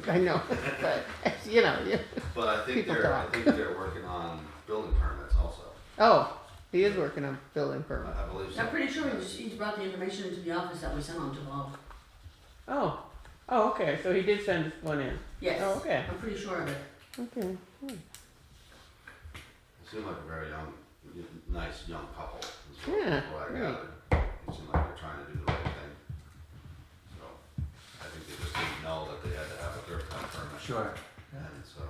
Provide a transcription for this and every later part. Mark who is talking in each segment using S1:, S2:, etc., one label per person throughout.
S1: but I know, but, you know, you,
S2: But I think
S1: People
S2: they're, I
S1: talk.
S2: think they're working on building permits also.
S1: oh, he is working on building
S2: I
S1: permit.
S2: I believe so.
S3: I'm pretty sure he's, he's brought the information into the office that we sent on to Bob.
S1: Oh, oh, okay, so he did send one in.
S3: Yes.
S1: Oh, okay.
S3: I'm pretty sure of it.
S1: Okay.
S2: It seemed like a very young, y- nice young couple. is what-
S1: Yeah,
S2: What I
S1: right.
S2: gathered. It seemed like they're trying to do the right thing. So I think they just didn't know that they had to have a third time permit.
S4: Sure.
S2: And so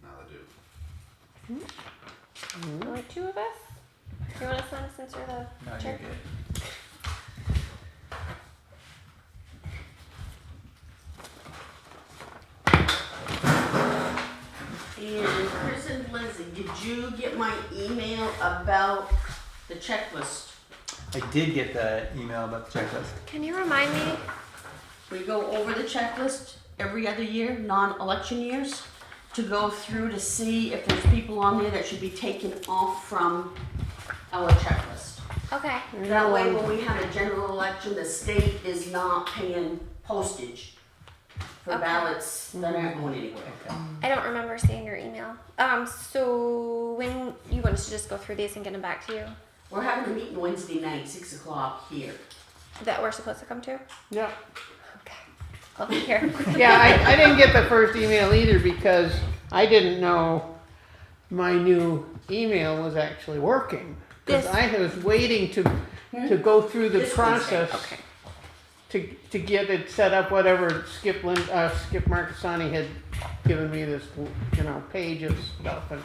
S2: now they do.
S5: Only two of us? Do you want to sign us since you're the
S4: No, you're
S5: chair?
S4: good.
S3: And Chris and Lindsay, did you get my email about the checklist?
S4: I did get the email about the checklist.
S5: Can you remind me?
S3: We go over the checklist every other year, non-election years, to go through to see if there's people on there that should be taken off from our checklist.
S5: Okay.
S3: That way, when we have a general election, the state is not paying postage for
S5: Okay.
S3: ballots that aren't going anywhere.
S5: I don't remember seeing your email. Um, so when you want us to just go through these and get them back to you
S3: We're having a meeting Wednesday night, six o'clock here.
S5: that we're supposed to come to?
S1: Yeah.
S5: Okay. I'll be here.
S1: Yeah, I, I didn't get the first email either because I didn't know my new email was actually working. Because
S5: This-
S1: I was waiting to, to go through the
S3: This Wednesday,
S1: process
S5: okay.
S1: to, to get it set up, whatever Skip Lin, uh, Skip Marcassani had given me this, you know, page of stuff. And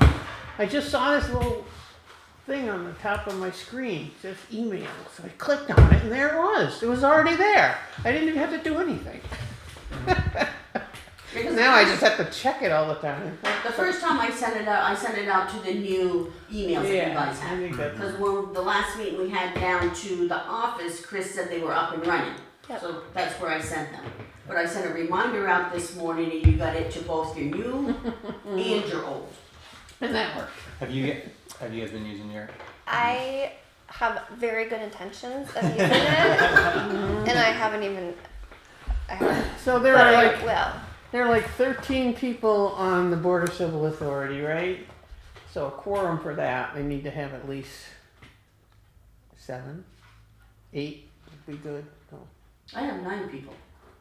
S1: I just saw this little thing on the top of my screen, it says email. So I clicked on it and there it was. It was already there. I didn't even have to do anything.
S3: Because
S1: Now I just have to check it all the time.
S3: The first time I sent it out, I sent it out to the new emails that you guys
S1: I
S3: have.
S1: think that's,
S3: Because when the last meeting we had down to the office, Chris said they were up and running.
S5: Yep.
S3: So that's where I sent them. But I sent a reminder out this morning and you got it to both your new and your old.
S1: and that worked.
S4: Have you have you guys been using your?
S5: I have very good intentions of using it, and I haven't even. I haven't.
S1: So there
S5: But
S1: are
S5: I
S1: like,
S5: will.
S1: there are like thirteen people on the Board of Civil Authority, right? So a quorum for that, they need to have at least seven, eight would be good. No.
S3: I have nine people.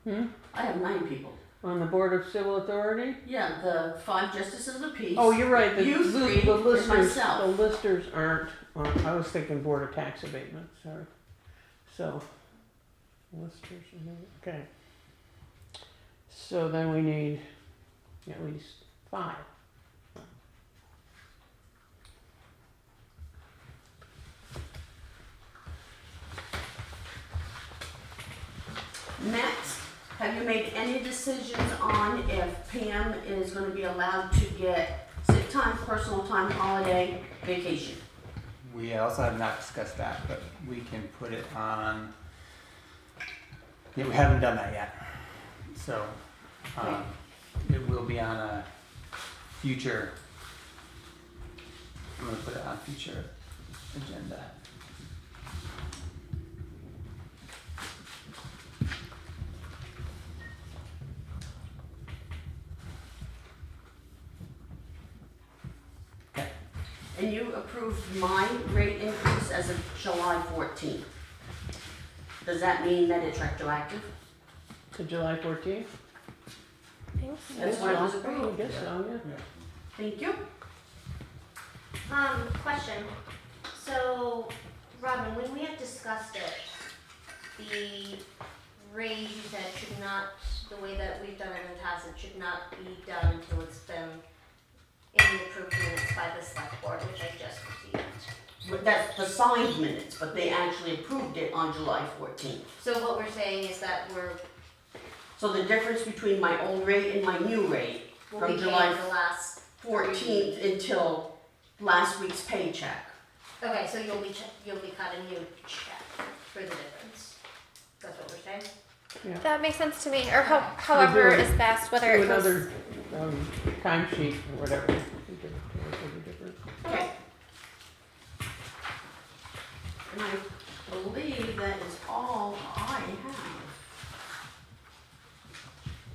S1: Hmm?
S3: I have nine people.
S1: On the Board of Civil Authority?
S3: Yeah, the five justices of the peace.
S1: Oh, you're right, the,
S3: You
S1: the-
S3: three
S1: the
S3: and
S1: listers, the
S3: myself.
S1: listers aren't, on- I was thinking Board of Tax Abatement, sorry. So, listers, okay. So then we need at least five.
S3: Matt, have you made any decisions on if Pam is gonna be allowed to get sick time, personal time, holiday, vacation?
S4: We also have not discussed that, but we can put it on. Yeah, we haven't done that yet, so um, it will be on a future. I'm gonna put it on future agenda.
S3: And you approved my rate increase as of July fourteenth. Does that mean that it's retroactive?
S1: To July fourteenth?
S5: Thanks.
S3: That's what it was
S1: I
S3: approved.
S1: guess so, yeah.
S3: Thank you.
S6: Um, question. So, Robin, when we had discussed it, the raise that should not, the way that we've done it in the past, it should not be done until it's been in the approved minutes by the select board, which I just received.
S3: But That's the signed minutes, but they actually approved it on July fourteenth.
S6: So what we're saying is that we're,
S3: So the difference between my old rate and my new rate
S6: we'll
S3: From
S6: be
S3: July
S6: paying the last.
S3: fourteenth until last week's paycheck.
S6: Okay, so you'll be, ch- you'll be cut a new check for the difference. That's what we're saying?
S5: That makes sense to me, or ho- however
S1: do-
S5: is best, whether
S1: Do
S5: it goes.
S1: another, um, timesheet or whatever. We could- we could do it.
S3: Okay. And I believe that is all I have.